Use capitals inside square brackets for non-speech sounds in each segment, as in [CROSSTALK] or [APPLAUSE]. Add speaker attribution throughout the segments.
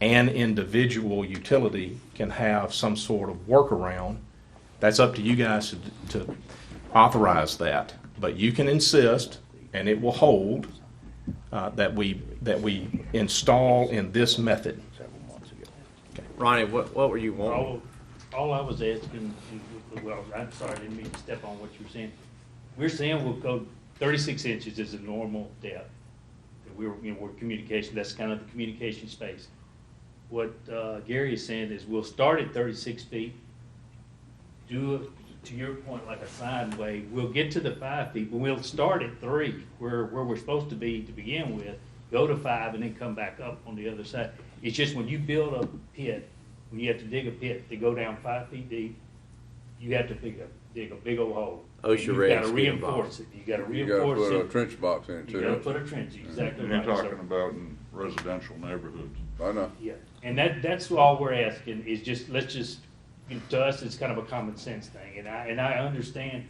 Speaker 1: an individual utility can have some sort of workaround. That's up to you guys to, to authorize that. But you can insist, and it will hold, uh, that we, that we install in this method.
Speaker 2: Ronnie, what, what were you wanting?
Speaker 3: All, all I was asking, well, I'm sorry, I didn't mean to step on what you were saying. We're saying we'll go thirty-six inches is the normal depth. And we were, you know, we're communication, that's kind of the communication space. What, uh, Gary is saying is we'll start at thirty-six feet, do it, to your point, like a sine wave. We'll get to the five feet, but we'll start at three, where, where we're supposed to be to begin with, go to five, and then come back up on the other side. It's just when you build a pit, when you have to dig a pit to go down five feet deep, you have to dig a, dig a big old hole.
Speaker 2: OSHA regs get
Speaker 3: And You gotta reinforce it, you gotta
Speaker 4: You gotta
Speaker 3: reinforce
Speaker 4: put a
Speaker 3: it,
Speaker 4: trench box in it
Speaker 3: you gotta put
Speaker 4: too.
Speaker 3: a trench, exactly
Speaker 5: Mm-hmm. You're
Speaker 3: right. So-
Speaker 5: talking about in residential neighborhoods.
Speaker 4: I know.
Speaker 3: Yeah, and that, that's all we're asking, is just, let's just, to us, it's kind of a common sense thing, and I, and I understand.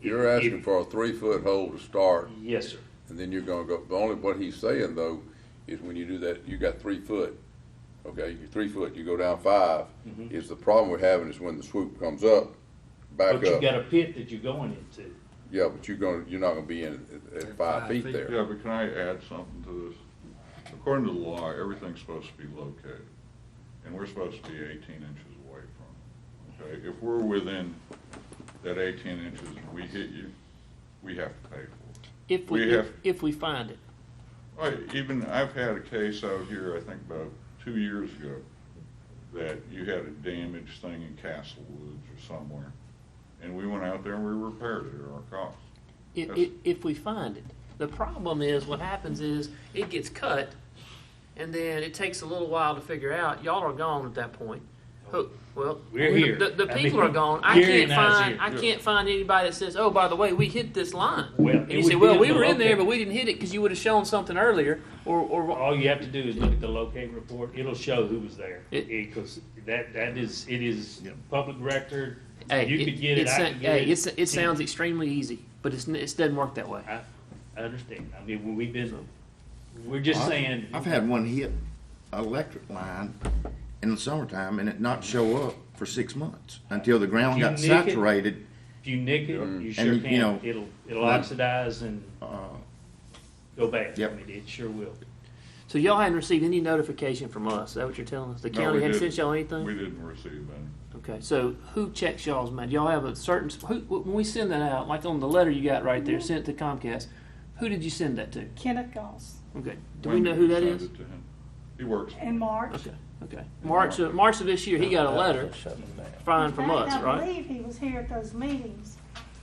Speaker 3: if-
Speaker 4: You're
Speaker 3: if-
Speaker 4: asking for a three-foot hole to start,
Speaker 3: Yes, sir.
Speaker 4: and then you're gonna go, the only, what he's saying though, is when you do that, you got three foot. Okay, you're three foot, you go down five,
Speaker 3: Mm-hmm.
Speaker 4: is the problem we're having is when the swoop comes up, back
Speaker 3: But you got a
Speaker 4: up.
Speaker 3: pit that you're going into.
Speaker 4: Yeah, but you're gonna, you're not gonna be in at, at five feet there.
Speaker 5: Yeah, but can I add something to this? According to the law, everything's supposed to be located, and we're supposed to be eighteen inches away from it. Okay, if we're within that eighteen inches and we hit you, we have to pay for
Speaker 6: If
Speaker 5: We
Speaker 6: we,
Speaker 5: have-
Speaker 6: if, if we find
Speaker 5: it.
Speaker 6: it.
Speaker 5: I, even, I've had a case out here, I think about two years ago, that you had a damaged thing in Castle Woods or somewhere, and we went out there and we repaired it at our cost.
Speaker 6: If,
Speaker 5: Yes.
Speaker 6: if, if we find it. The problem is, what happens is, it gets cut, and then it takes a little while to figure out. Y'all are gone at that point. Who- Well,
Speaker 3: We're
Speaker 6: the-
Speaker 3: here.
Speaker 6: The, the
Speaker 3: I
Speaker 6: people
Speaker 3: mean,
Speaker 6: are gone. I
Speaker 3: Gary
Speaker 6: can't
Speaker 3: and I's here.
Speaker 6: find. I can't find anybody that says, "Oh, by the way, we hit this line."
Speaker 3: Well,
Speaker 6: and
Speaker 3: it
Speaker 6: you
Speaker 3: would
Speaker 6: say,
Speaker 3: be
Speaker 6: "Well,
Speaker 3: in
Speaker 6: we
Speaker 3: the
Speaker 6: were in there,
Speaker 3: loca-
Speaker 6: but we didn't hit it because you would have shown something earlier." Or, or
Speaker 3: All you have to do is look at the locate report, it'll show who was there.
Speaker 6: It-
Speaker 3: Because that, that is, it is public record,
Speaker 6: hey,
Speaker 3: you could get it, I
Speaker 6: sa-
Speaker 3: could
Speaker 6: hey,
Speaker 3: get
Speaker 6: it's-
Speaker 3: it.
Speaker 6: it sounds extremely easy, but it's, n- it doesn't work that way.
Speaker 3: I, I understand, I mean, when we've been, we're just
Speaker 7: I've-
Speaker 3: saying.
Speaker 7: I've had one hit electric line in the summertime and it not show up for six months until the ground got
Speaker 3: Unique it.
Speaker 7: saturated.
Speaker 3: If you nick it,
Speaker 4: Mm-hmm.
Speaker 3: you sure
Speaker 7: you
Speaker 3: can,
Speaker 7: know,
Speaker 3: it'll, it'll
Speaker 7: that-
Speaker 3: oxidize and
Speaker 7: Uh,
Speaker 3: go bad, I
Speaker 7: Yep.
Speaker 3: mean, it sure will.
Speaker 6: So y'all hadn't received any notification from us. Is that what you're telling us? The
Speaker 5: No,
Speaker 6: county
Speaker 5: we
Speaker 6: hadn't
Speaker 5: didn't.
Speaker 6: sent y'all anything?
Speaker 5: We didn't receive any.
Speaker 6: Okay, so who checks y'all's mail? Y'all have a certain who, when we send that out, like on the letter you got right there, sent to Comcast. Who did you send that to?
Speaker 8: Kenneth Goss
Speaker 6: Okay, do we
Speaker 5: When
Speaker 6: know
Speaker 5: did
Speaker 6: who
Speaker 5: you
Speaker 6: that
Speaker 5: send
Speaker 6: is?
Speaker 5: it to him? He works.
Speaker 8: and March.
Speaker 6: Okay, okay. March of March of this year, he got a letter fine from
Speaker 8: In
Speaker 6: us,
Speaker 8: fact, I
Speaker 6: right?
Speaker 8: believe he was here at those meetings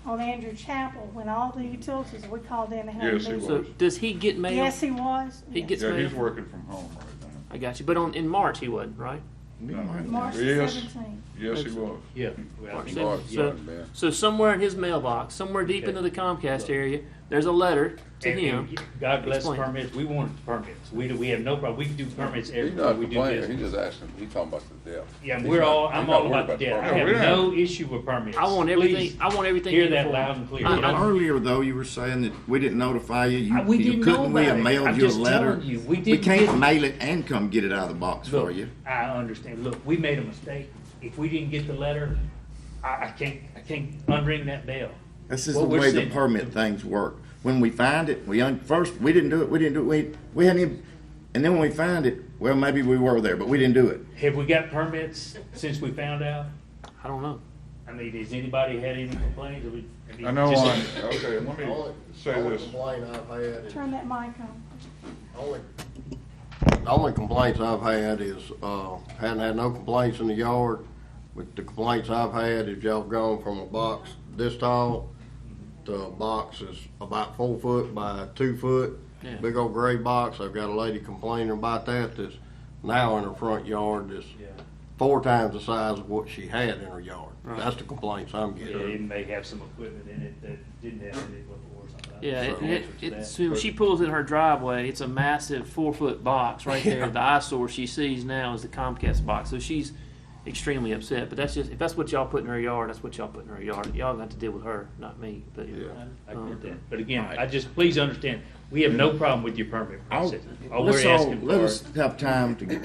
Speaker 8: on Andrew Chapel when all the utilities were called in to help.
Speaker 5: Yes, he
Speaker 8: me.
Speaker 5: was.
Speaker 6: So does he get mail?
Speaker 8: Yes, he was.
Speaker 6: He
Speaker 8: Yes.
Speaker 6: gets
Speaker 5: Yeah,
Speaker 6: mail.
Speaker 5: he's working from home right
Speaker 6: I got you. But on in March he wasn't, right?
Speaker 5: now.
Speaker 8: March the
Speaker 5: Yes,
Speaker 8: seventeenth.
Speaker 5: yes, he was.
Speaker 3: Yeah.
Speaker 6: March
Speaker 4: March,
Speaker 6: seventh. So,
Speaker 4: yeah.
Speaker 6: so somewhere in his mailbox, somewhere deep into the Comcast area, there's a letter to
Speaker 3: And-
Speaker 6: him.
Speaker 3: and God bless
Speaker 6: Explain.
Speaker 3: permits, we want permits, we, do- we have no problem, we can do permits
Speaker 4: He's
Speaker 3: everywhere
Speaker 4: not
Speaker 3: we do
Speaker 4: complaining,
Speaker 3: business.
Speaker 4: he's just asking, he's talking about the depth.
Speaker 3: Yeah, and
Speaker 4: He's
Speaker 3: we're
Speaker 4: not-
Speaker 3: all,
Speaker 4: he's
Speaker 3: I'm
Speaker 4: not
Speaker 3: all
Speaker 4: worried
Speaker 3: about the
Speaker 4: the
Speaker 3: debt, I have
Speaker 4: permit.
Speaker 5: we're not-
Speaker 3: no issue with permits.
Speaker 6: I want everything.
Speaker 3: Please,
Speaker 6: I want everything.
Speaker 3: Hear that
Speaker 6: uniform.
Speaker 3: loud and clear.
Speaker 6: I- I-
Speaker 7: Earlier though, you were saying that we didn't notify you.
Speaker 6: Uh,
Speaker 7: You,
Speaker 6: we
Speaker 7: you
Speaker 6: didn't know
Speaker 7: couldn't. we
Speaker 6: about
Speaker 7: have
Speaker 6: it.
Speaker 7: mailed
Speaker 6: I'm
Speaker 7: you
Speaker 6: just
Speaker 7: a letter.
Speaker 6: telling you, we didn't
Speaker 7: can't
Speaker 6: get-
Speaker 7: mail it and come get it out of the box
Speaker 3: Look,
Speaker 7: for you.
Speaker 3: I understand, look, we made a mistake, if we didn't get the letter, I, I can't, I can't unring that bell.
Speaker 7: This is
Speaker 3: What
Speaker 7: the
Speaker 3: we're
Speaker 7: way the
Speaker 3: saying-
Speaker 7: permit things work. When we find it, we un- first we didn't do it. We didn't do it. We we hadn't even. And then when we find it, well, maybe we were there, but we didn't do it.
Speaker 3: Have we got permits since we found out?
Speaker 6: I don't know.
Speaker 3: I mean, has anybody had any complaints? Have we- mean,
Speaker 5: I know
Speaker 3: just-
Speaker 5: on, okay, let me
Speaker 9: Only-
Speaker 5: say
Speaker 9: only
Speaker 5: this.
Speaker 9: complaint I've had,
Speaker 8: Turn that mic on.
Speaker 9: only, the only complaints I've had is, uh, hadn't had no complaints in the yard, but the complaints I've had is y'all gone from a box this tall to a box is about four foot by two foot,
Speaker 6: Yeah.
Speaker 9: big old gray box. I've got a lady complaining about that that's now in her front yard that's
Speaker 3: Yeah.
Speaker 9: four times the size of what she had in her yard. That's the complaints I'm
Speaker 3: Yeah,
Speaker 9: getting.
Speaker 3: it may have some equipment in it that didn't have in it before or something. I
Speaker 6: Yeah,
Speaker 3: don't
Speaker 6: it,
Speaker 3: know
Speaker 6: it,
Speaker 3: the answer to
Speaker 6: it's,
Speaker 3: that.
Speaker 6: when she pulls in her driveway, it's a massive four foot
Speaker 3: [LAUGHS]
Speaker 6: box right there. The eyesore she sees now is the Comcast box. So she's extremely upset. But that's just if that's what y'all put in her yard, that's what y'all put in her yard. Y'all got to deal with her, not me. But um,
Speaker 3: I get that. But again, I just, please understand, we have no problem with your permit process. All
Speaker 7: Let's
Speaker 3: we're
Speaker 7: all-
Speaker 3: asking for.
Speaker 7: Let us have time to get